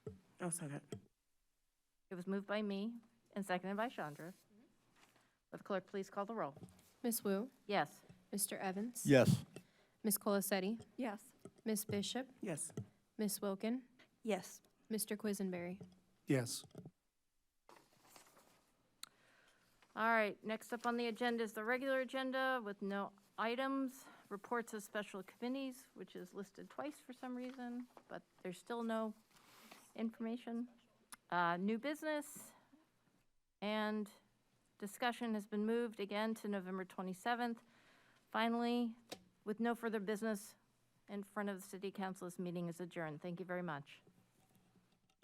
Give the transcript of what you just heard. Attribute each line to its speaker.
Speaker 1: Oh, second.
Speaker 2: It was moved by me and seconded by Chandra. Will the clerk please call the roll?
Speaker 3: Ms. Wu,
Speaker 2: Yes.
Speaker 3: Mr. Evans.
Speaker 4: Yes.
Speaker 3: Ms. Colasetti,
Speaker 5: Yes.
Speaker 3: Ms. Bishop,
Speaker 1: Yes.
Speaker 3: Ms. Wilkin,
Speaker 5: Yes.
Speaker 3: Mr. Quisenberry.
Speaker 4: Yes.
Speaker 2: All right, next up on the agenda is the regular agenda with no items, reports of special committees, which is listed twice for some reason, but there's still no information. Uh, New business and discussion has been moved again to November 27th. Finally, with no further business in front of the city council, this meeting is adjourned. Thank you very much.